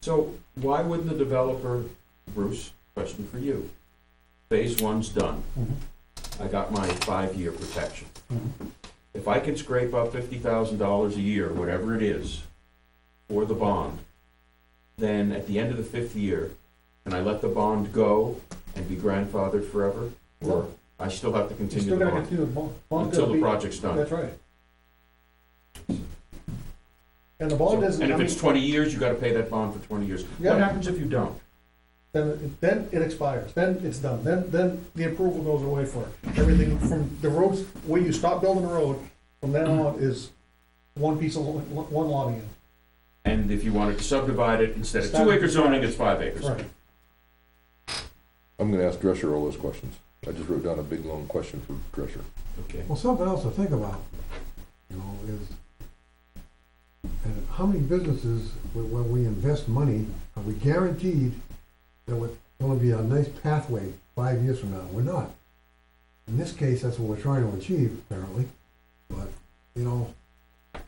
So why wouldn't the developer, Bruce, question for you? Phase one's done. Mhm. I got my five-year protection. Mhm. If I can scrape up fifty thousand dollars a year, whatever it is, for the bond, then at the end of the fifth year, can I let the bond go and be grandfathered forever? Or I still have to You continue still the gotta bond continue the bond. Bond's until gotta the be- project's done? That's right. And the bond doesn't, And I if mean, it's twenty years, you gotta pay that bond for twenty years. Yeah. What happens if you don't? then, it- then it expires, then it's done, then, then the approval goes away for it. Everything from the roads, where you stop building a road, from then on is one piece of, lo- lo- one lot again. And if you wanted to subdivide it, instead of Start two with acre the zoning, it's five acres. Right. I'm gonna ask Drescher all those questions. I just wrote down a big, long question for Drescher. Okay. Well, something else to think about, you know, is, and how many businesses, when, when we invest money, are we guaranteed that we're gonna be a nice pathway five years from now? We're not. In this case, that's what we're trying to achieve, apparently, but, you know,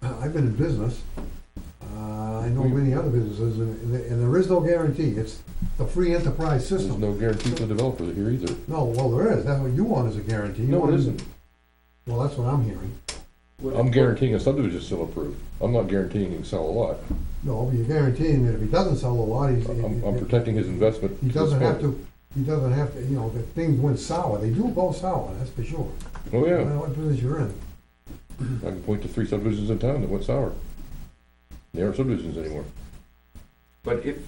I- I've been in business, uh, I know many other businesses, and, and there- and there is no guarantee, it's the free enterprise There's system. no guarantee for the developer here either. No, well, there is, that's what you want is a guarantee. You No, want- it isn't. Well, that's what I'm hearing. I'm guaranteeing a subdivision is still approved. I'm not guaranteeing he can sell a lot. No, but you're guaranteeing that if he doesn't sell a lot, he's, I'm, I'm protecting his investment. he to the doesn't have spot. to, he doesn't have to, you know, that things went sour, they do go sour, that's for sure. Oh, No yeah. matter what business you're in, I can point to three subdivisions in town that went sour. They aren't subdivisions anymore. But if,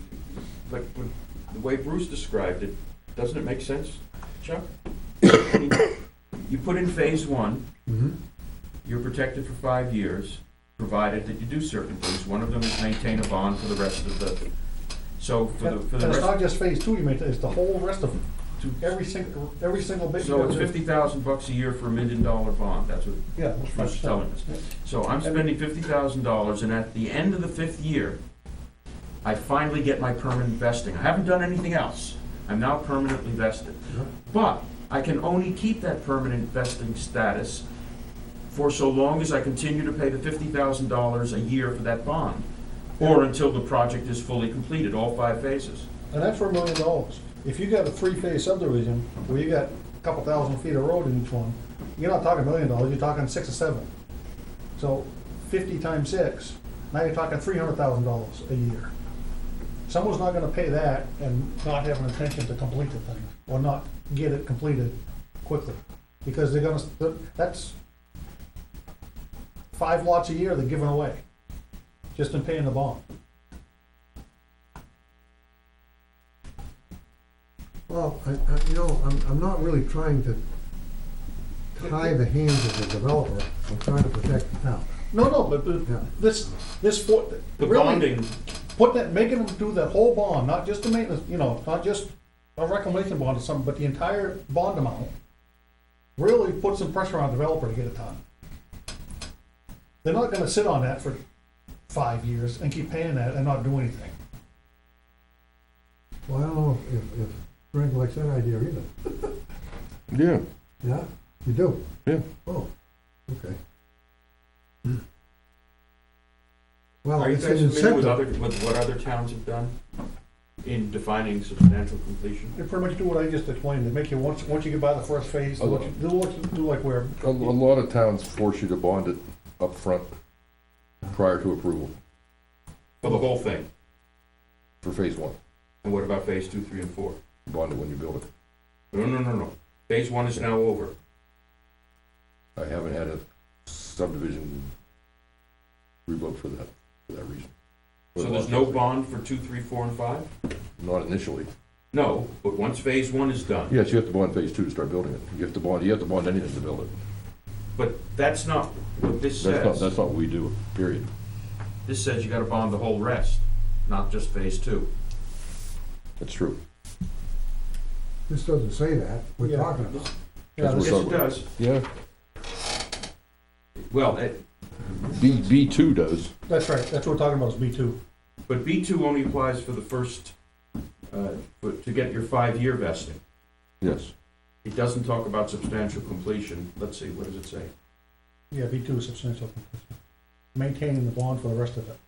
but when- the way Bruce described it, doesn't it make sense, Chuck? I mean, You put in phase one, Mhm. you're protected for five years, provided that you do certain things. One of them is maintain a bond for the rest of the, so for the, And for and the it's not rest. just phase two, you mean, it's the whole rest of, to- every single, every single bit. So it's fifty thousand bucks a year for a million dollar bond, that's what Yeah. that's Bruce is right. telling us. So I'm spending fifty thousand dollars, and at the end of the fifth year, I finally get my permanent vesting. I haven't done anything else. I'm now permanently vested. Yeah. But I can only keep that permanent vesting status for so long as I continue to pay the fifty thousand dollars a year for that bond, or until the project is fully completed, all five phases. And that's for a million dollars. If you got a three-phase subdivision, where you got a couple thousand feet of road in each one, you're not talking a million dollars, you're talking six or seven. So fifty times six, now you're talking three hundred thousand dollars a year. Someone's not gonna pay that and not have an intention to complete the thing, or not get it completed quickly. Because they're gonna, that's five lots a year they're giving away, just in paying the bond. Well, I, I, you know, I'm, I'm not really trying to tie the hands of the developer, I'm trying to protect the town. No, no, but, but Yeah. this, this for, The really, bonding, put that, making them do that whole bond, not just the maintenance, you know, not just a reclamation bond or something, but the entire bond amount, really put some pressure on the developer to get it done. They're not gonna sit on that for five years and keep paying that and not do anything. Well, I don't know if, if- if Frank likes that idea either, Yeah, yeah, you do? yeah. Oh, okay. Hmm. Well, are you Oh, it's an guys familiar with incentive, other, with what other towns have done in defining substantial completion? They pretty much do what I just explained, they make you, once, once you get by the first phase, they'll let you- they'll let you do like where, A, a lot of towns force you to bond it up front prior to approval For the whole thing? for phase one. And what about phase two, three, and four? Bond it when you build it. No, no, no, no. Phase one is now over. I haven't had a subdivision revoked for that, for that reason. So there's no bond for two, three, four, and five? Not initially. No, but once phase one is done. Yes, you have to bond phase two to start building it. You have to bond, you have to bond anything to build it. But that's not what this That's not, that's says. not what we do, period. This says you gotta bond the whole rest, not just phase two. That's true. this doesn't say that, we're Yeah. talking about. yeah, Yes, That's this- what- it does. Yeah, Well, it- B, B two does. that's right, that's what we're talking about, is B two. but B two only applies for the first, uh, for- to get your five-year vesting. Yes, It doesn't talk about substantial completion. Let's see, what does it say? Yeah, B two is substantial. completion. Maintaining the bond for the rest of it.